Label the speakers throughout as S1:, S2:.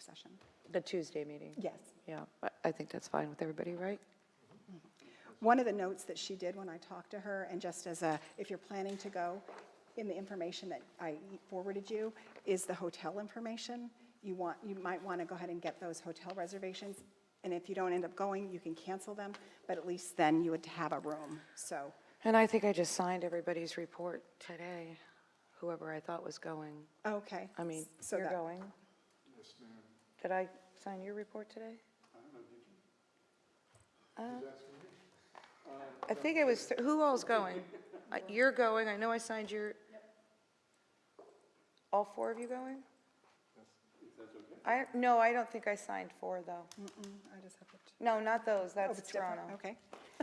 S1: session.
S2: The Tuesday meeting?
S1: Yes.
S2: Yeah, I- I think that's fine with everybody, right?
S1: One of the notes that she did when I talked to her, and just as a, if you're planning to go, in the information that I forwarded you, is the hotel information. You want, you might want to go ahead and get those hotel reservations, and if you don't end up going, you can cancel them, but at least then you would have a room, so.
S2: And I think I just signed everybody's report today, whoever I thought was going.
S1: Okay.
S2: I mean,
S1: So
S2: you're
S1: that-
S2: going? Yes, ma'am. Did I sign your report today? Uh, I think it was, th- who all's going? Uh, You're going, I know I signed your, all four of you going? I, no, I don't think I signed four, though.
S1: Mm, I just have to.
S2: No, not those,
S1: oh,
S2: that's
S1: it's different,
S2: Toronto.
S1: Okay.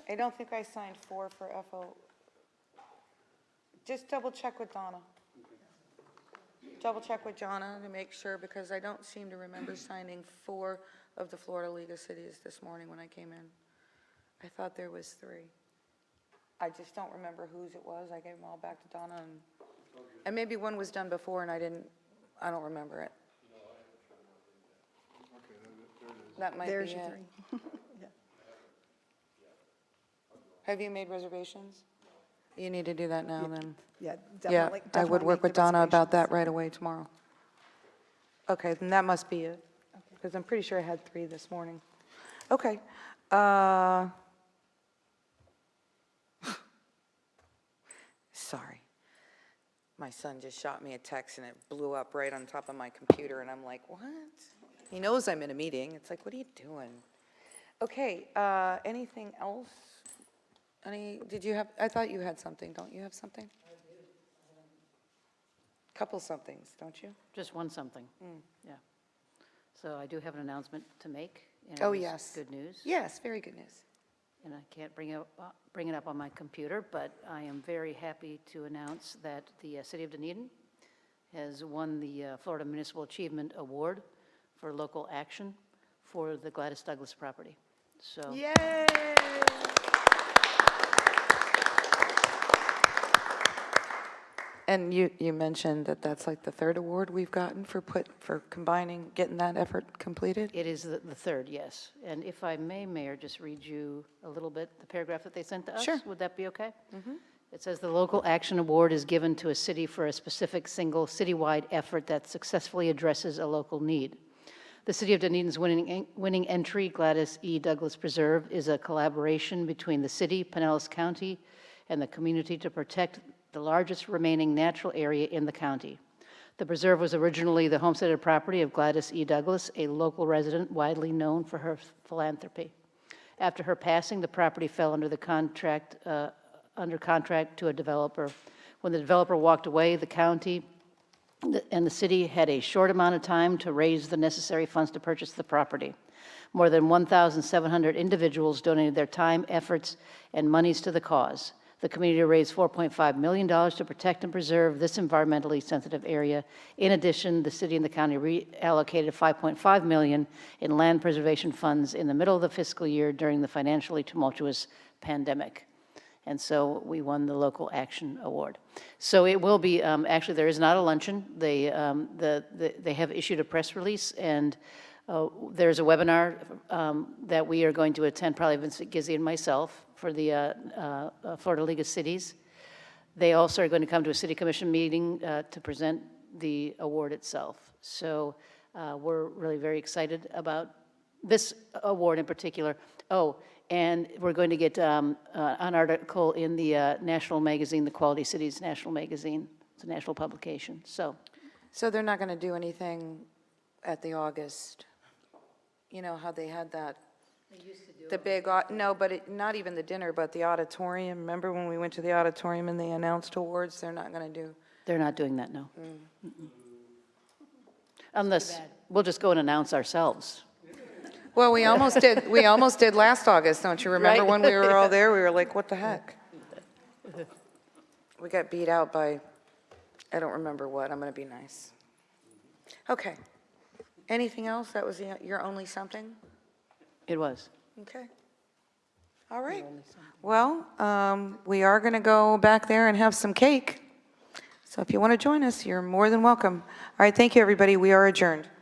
S2: I don't think I signed four for FO. Just double check with Donna. Double check with Jonna to make sure, because I don't seem to remember signing four of the Florida League of Cities this morning when I came in. I thought there was three. I just don't remember whose it was. I gave them all back to Donna and, and maybe one was done before and I didn't, I don't remember it. That might be it.
S1: There's your three.
S2: Have you made reservations? You need to do that now, then.
S1: Yeah,
S2: Yeah,
S1: definitely.
S2: I would
S1: definitely
S2: work
S1: make
S2: with
S1: the
S2: Donna about that
S1: reservations.
S2: right away tomorrow. Okay, then that must be it, because I'm pretty sure I had three this morning. Okay. uh, Sorry. My son just shot me a text, and it blew up right on top of my computer, and I'm like, what? He knows I'm in a meeting. It's like, what are you doing? Okay, uh, anything else? Any, did you have, I thought you had something. Don't you have something? Couple somethings, don't you?
S3: Just one something.
S2: Mm.
S3: Yeah. So I do have an announcement to make. and it
S2: Oh,
S3: is
S2: yes.
S3: Good news.
S2: Yes, very good news.
S3: And I can't bring it, up- uh, bring it up on my computer, but I am very happy to announce that the uh, city of Dunedin has won the uh, Florida Municipal Achievement Award for local action for the Gladys Douglas property. So
S2: Yay! And you, you mentioned that that's like the third award we've gotten for put, for combining, getting that effort completed?
S3: It is the the third, yes. And if I may, Mayor, just read you a little bit, the paragraph that they sent to us?
S2: Sure.
S3: Would that be okay? It says, "The local action award is given to a city for a specific single citywide effort that successfully addresses a local need. The City of Dunedin's winning en- winning entry, Gladys E. Douglas Preserve, is a collaboration between the city, Pinellas County, and the community to protect the largest remaining natural area in the county. The preserve was originally the homesteaded property of Gladys E. Douglas, a local resident widely known for her philanthropy. After her passing, the property fell under the contract, uh, under contract to a developer. When the developer walked away, the county the- and the city had a short amount of time to raise the necessary funds to purchase the property. More than 1,700 individuals donated their time, efforts, and monies to the cause. The community raised $4.5 million to protect and preserve this environmentally sensitive area. In addition, the city and the county reallocated $5.5 million in land preservation funds in the middle of the fiscal year during the financially tumultuous pandemic. And so we won the Local Action Award. So it will be, um, actually, there is not a luncheon. They, um, the, the- they have issued a press release, and uh, there's a webinar um, that we are going to attend, probably Vincent Gizzi and myself, for the uh, uh, uh, Florida League of Cities. They also are going to come to a city commission meeting uh, to present the award itself. So uh, we're really very excited about this award in particular. Oh, and we're going to get um, uh, an article in the uh, national magazine, the Quality Cities National Magazine. It's a national publication, so
S2: So they're not going to do anything at the August, you know, how they had that? The big, au- no, but it, not even the dinner, but the auditorium. Remember when we went to the auditorium and they announced awards? They're not going to do,
S3: they're not doing that, no. Mm-mm. Unless, we'll just go and announce ourselves.
S2: well, we almost did, we almost did last August, don't you remember?
S3: Right.
S2: When we were all there, we were like, what the heck? We got beat out by, I don't remember what, I'm going to be nice. Okay. Anything else? That was the- your only something?
S3: It was.
S2: Okay. All right. Well, um, we are going to go back there and have some cake. So if you want to join us, you're more than welcome. All right, thank you, everybody. We are adjourned.